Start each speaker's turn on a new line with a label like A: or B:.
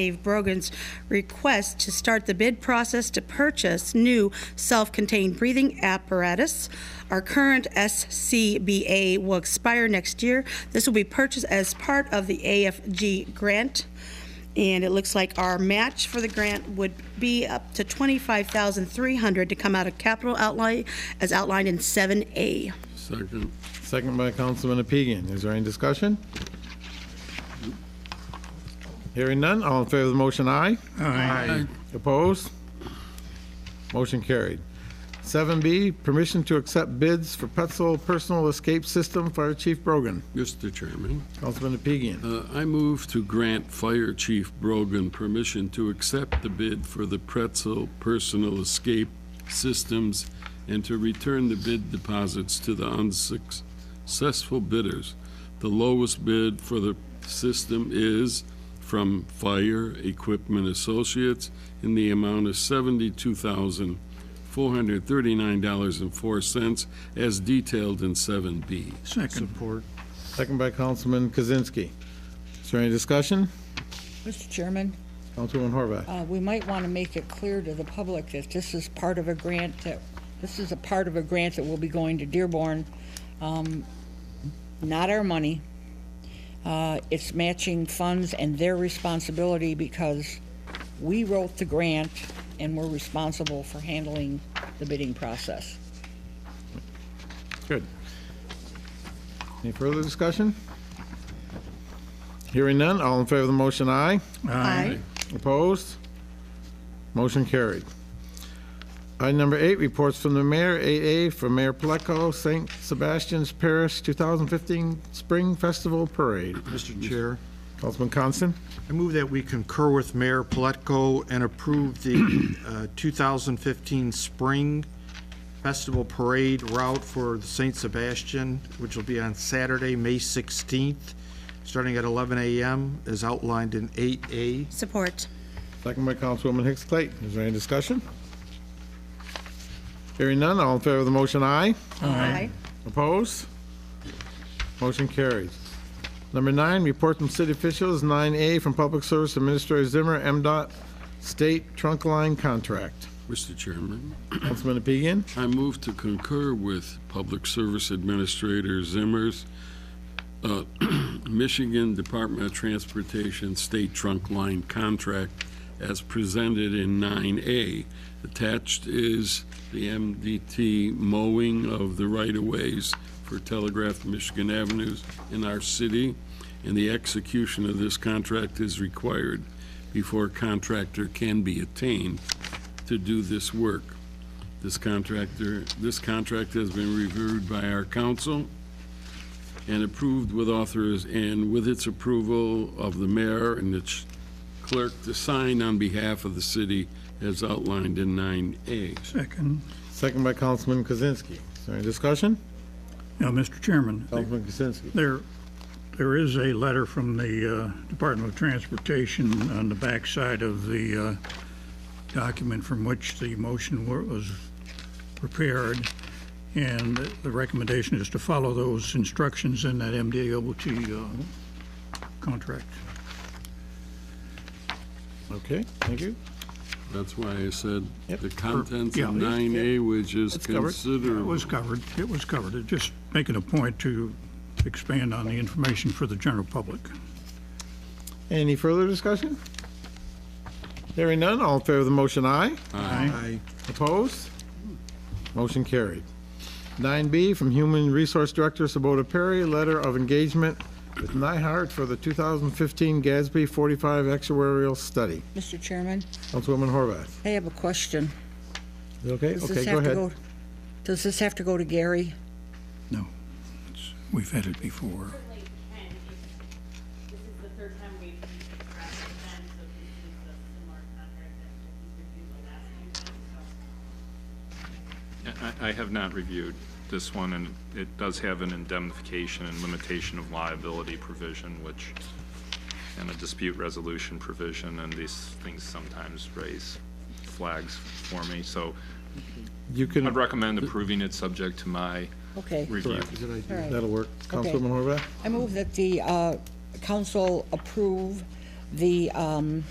A: Dave Brogan's request to start the bid process to purchase new self-contained breathing apparatus. Our current SCBA will expire next year. This will be purchased as part of the AFG grant. And it looks like our match for the grant would be up to 25,300 to come out of capital outlay as outlined in 7A.
B: Second.
C: Second by Councilman Apigian. Is there any discussion? Hearing none, all in favor of the motion, aye. Aye. Opposed? Motion carried. 7B, permission to accept bids for Petzl Personal Escape System, Fire Chief Brogan.
B: Mr. Chairman,
C: Councilman Apigian.
B: uh, I move to grant Fire Chief Brogan permission to accept the bid for the Pretzel Personal Escape Systems and to return the bid deposits to the unsuccessful bidders. The lowest bid for the system is from Fire Equipment Associates in the amount of $72,439.04 as detailed in 7B.
D: Second.
C: Second by Councilman Kozinski. Is there any discussion?
E: Mr. Chairman,
C: Councilwoman Horvath.
E: uh, we might want to make it clear to the public that this is part of a grant that, this is a part of a grant that will be going to Dearborn. Um, Not our money. Uh, It's matching funds and their responsibility because we wrote the grant and we're responsible for handling the bidding process.
C: Good. Any further discussion? Hearing none, all in favor of the motion, aye.
A: Aye.
C: Opposed? Motion carried. Item number eight, reports from the mayor, AA, for Mayor Pleco, St. Sebastian's Parish 2015 Spring Festival Parade.
D: Mr. Chair,
C: Councilman Constant?
D: I move that we concur with Mayor Pletko and approve the uh, 2015 Spring Festival Parade route for the St. Sebastian, which will be on Saturday, May 16th, starting at 11 a.m., as outlined in 8A.
A: Support.
C: Second by Councilwoman Hicks Clayton. Is there any discussion? Hearing none, all in favor of the motion, aye.
A: Aye.
C: Opposed? Motion carries. Number nine, report from city officials, 9A, from Public Service Administrator Zimmer, MDOT State Trunk Line Contract.
B: Mr. Chairman,
C: Councilman Apigian?
B: I move to concur with Public Service Administrator Zimmer's uh, Michigan Department of Transportation State Trunk Line Contract as presented in 9A. Attached is the MDT mowing of the right-of-ways for Telegraph Michigan Avenues in our city, and the execution of this contract is required before a contractor can be attained to do this work. This contractor, this contract has been reviewed by our council and approved with authors, and with its approval of the mayor and its clerk to sign on behalf of the city as outlined in 9A.
F: Second.
C: Second by Councilman Kozinski. Is there any discussion?
F: Now, Mr. Chairman,
C: Councilman Kozinski.
F: there, there is a letter from the uh, Department of Transportation on the backside of the uh, document from which the motion wa- was prepared, and the recommendation is to follow those instructions in that MDOT uh, contract.
C: Okay, thank you.
B: That's why I said
C: Yep.
B: the contents
F: Yeah.
B: of 9A, which is
C: That's covered.
F: It
B: considered.
F: was covered, it was covered. It Just making a point to expand on the information for the general public.
C: Any further discussion? Hearing none, all in favor of the motion, aye.
D: Aye.
C: Opposed? Motion carried. 9B from Human Resource Director Sabota Perry, letter of engagement with Nyhart for the 2015 GASB 45 actuarial study.
E: Mr. Chairman,
C: Councilwoman Horvath.
E: I have a question.
C: Is it Okay?
E: Does
C: Okay,
E: this
C: go
E: have to
C: ahead.
E: go, does this have to go to Gary?
F: No, it's- we've had it before.
G: certainly can, if, this is the third time we've asked them, so this is a similar contract that we reviewed the last few times, so.
H: I- I have not reviewed this one, and it does have an indemnification and limitation of liability provision, which, and a dispute resolution provision, and these things sometimes raise flags for me. So
C: You
H: I'd
C: can,
H: recommend approving it, subject to my
E: Okay.
H: review.
E: All right.
C: that'll work.
E: Okay.
C: Councilwoman Horvath?
E: I move that the uh, council approve the um,